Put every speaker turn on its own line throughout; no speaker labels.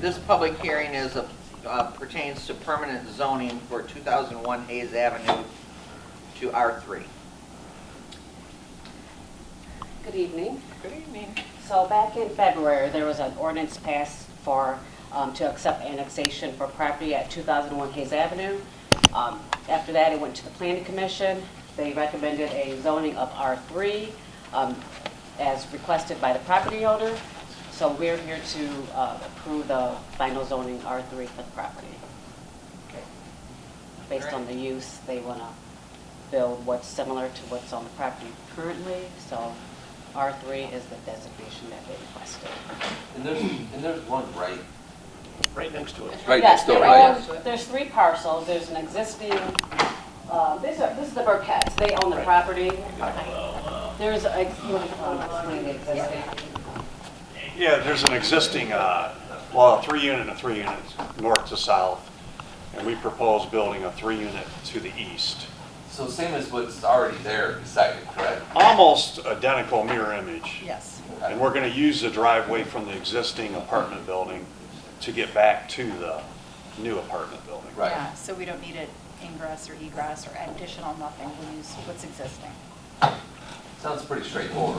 this public hearing is, a- uh, pertains to permanent zoning for 2001 Hayes Avenue to R3.
Good evening.
Good evening.
So back in February, there was an ordinance passed for, um, to accept annexation for property at 2001 Hayes Avenue. Um, After that, it went to the planning commission. They recommended a zoning of R3 um, as requested by the property owner. So we're here to uh, approve the final zoning R3 for the property. Based on the use, they want to build what's similar to what's on the property currently. So R3 is the designation that they requested.
And there's, and there's one right,
Right next to it.
right next door, right?
Yes, there are- there's three parcels. There's an existing, uh, these are, this is the Burketts. They own the
Right.
property. There's, a- you want to explain the existing?
Yeah, there's an existing, uh, well, a three-unit and a three-unit, north to south, and we propose building a three-unit to the east.
So same as what's already there beside it, correct?
Almost identical mirror image.
Yes.
And we're going to use the driveway from the existing apartment building to get back to the new apartment building.
Right.
Yeah, so we don't need it ingress or egress or additional nothing, we'll use what's existing.
Sounds pretty straightforward.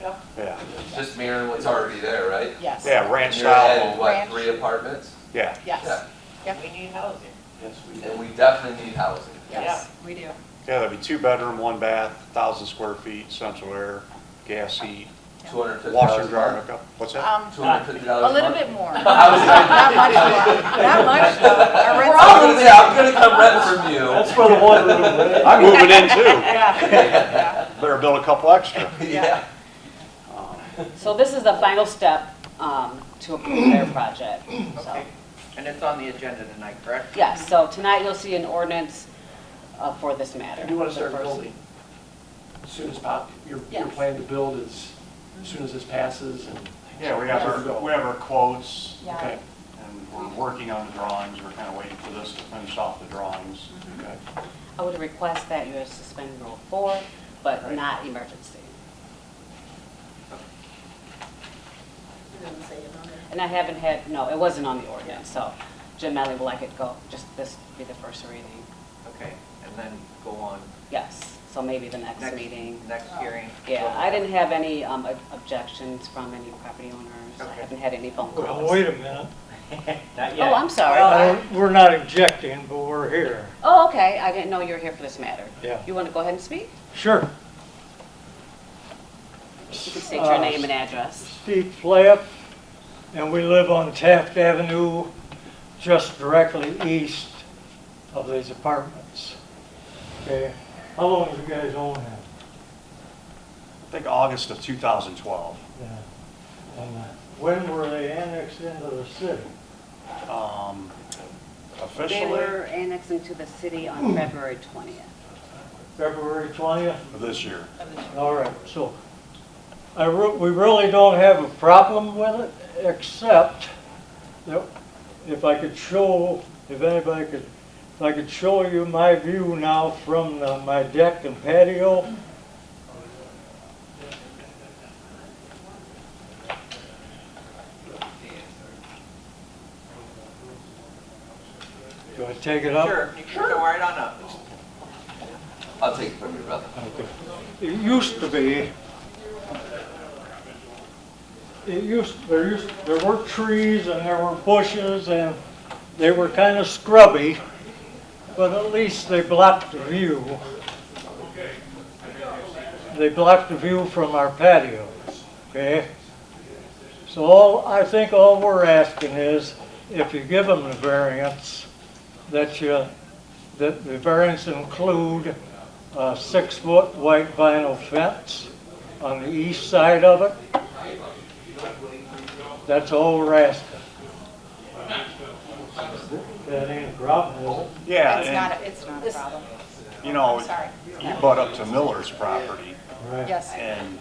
Yeah,
Just mirroring what's already there, right?
Yes.
yeah, ranch
You're adding,
style,
what,
Ranch.
three apartments?
yeah.
Yes,
Yeah.
We need housing.
And we definitely need housing.
yes, we do.
Yeah, that'd be two bedroom, one bath, 1,000 square feet, central air, gas heat,
Two hundred fifty
washer,
dollars
dryer, hookup. What's that?
Um,
Two hundred fifty dollars
a
a month?
little bit more. Not
I was gonna-
much more, not much though.
I
Our rent's
was gonna say, I'm gonna come rent from you.
for the one room, right?
I'm moving in too.
Yeah.
Better build a couple extra.
Yeah.
So this is the final step um, to approve their project. So,
Okay. And it's on the agenda tonight, correct?
yes, so tonight you'll see an ordinance uh, for this matter.
You do want to start
The first-
building as soon as pop, your, your
Yes.
plan to build is, as soon as this passes and.
Yeah, we have our, we have our quotes,
Yeah.
Okay,
and we're working on the drawings, we're kind of waiting for this to finish off the drawings.
Mm-hmm.
okay.
I would request that you suspend Rule 4, but
Right.
not emergency. And I haven't had, no, it wasn't on the ordinance, so Jim Malley will like it go, just this be the first reading.
Okay, and then go on.
Yes, so maybe the next meeting.
Next hearing.
Oh. Yeah, I didn't have any um, ob- objections from any property owners. I
Okay.
haven't had any phone
Well,
calls.
wait a minute.
Not
Oh, I'm
I
sorry.
don't- We're not objecting, but we're here.
Oh, okay, I didn't know you were here for this matter.
Yeah.
You want to go ahead and speak?
Sure.
You can state
Uh,
your name and address.
Steve Flapp, and we live on Taft Avenue, just directly east of these apartments. Okay, how long have you guys owned that?
I think August of 2012.
Yeah. And uh, when were they annexed into the city?
Um,
They
Officially,
were annexed into the city on February 20th.
February 20th?
this year.
All right, so I, re- we really don't have a problem with it, except that if I could show, if anybody could, if I could show you my view now from the- my deck and patio. Do I take it up?
Sure, you can go right on up.
I'll take it from your brother.
It used to be, it used, there used, there were trees and there were bushes and they were kind of scrubby, but at least they blocked the view. They blocked the view from our patio, okay? So all, I think all we're asking is, if you give them the variance, that you, that the variance include a six-foot white vinyl fence on the east side of it. That's all we're asking. That ain't a problem, is it?
Yeah,
It's
and,
not, a- it's not a problem.
you know,
I'm sorry.
you butt up to Miller's property,
Right.
Yes.
and